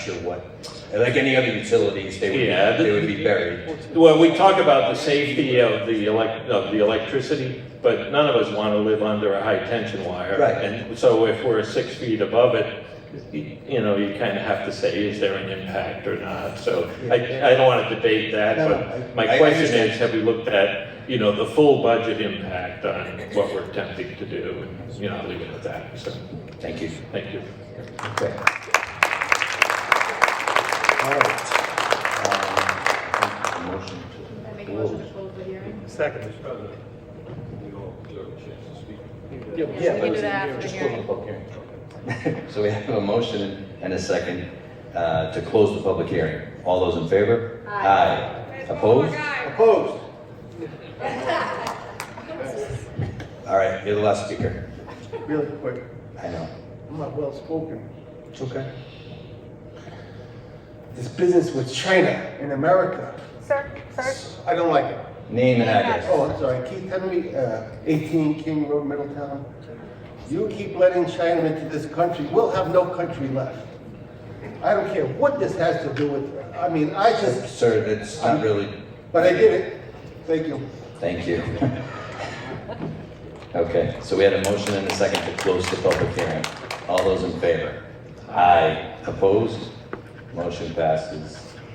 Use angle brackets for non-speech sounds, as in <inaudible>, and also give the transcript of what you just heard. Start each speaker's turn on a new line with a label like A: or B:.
A: sure what, like any other utilities, they
B: Yeah,
A: would,
B: the-
A: they would be buried.
B: Well, we talk about the safety of the elec, of the electricity, but none of us want to live under a high-tension wire.
A: Right.
B: And so if we're six feet above it, y- you know, you kind of have to say, is there an impact or not? So I, I don't want to debate that,
A: No, no,
B: but
A: I- I
B: my question
A: understand.
B: is, have we looked at, you know, the full budget impact on what we're attempting to do? And, you know, I'll leave it at that, so,
A: Thank you.
B: thank you.
A: Okay. All right. Um, Motion to-
C: I make a motion to close the hearing.
D: Second.
C: Yeah, we can do that after the hearing.
A: So we have a motion and a second uh, to close the public hearing. All those in favor?
C: Aye.
A: Opposed?
D: Opposed?
A: <laughs> All right, you're the last speaker.
D: Really quick,
A: I know.
D: I'm not well spoken.
A: It's okay.
D: This business with China in America,
E: Sir, sir,
D: I don't like it.
A: Name and address.
D: Oh, I'm sorry, Keith Henry, uh, 18 King Road, Middletown. You keep letting China into this country, we'll have no country left. I don't care what this has to do with, I mean, I just,
A: Sir, that's not really,
D: but I did it. Thank you.
A: thank you. Okay, so we had a motion and a second to close the public hearing. All those in favor? Aye. Opposed? Motion passes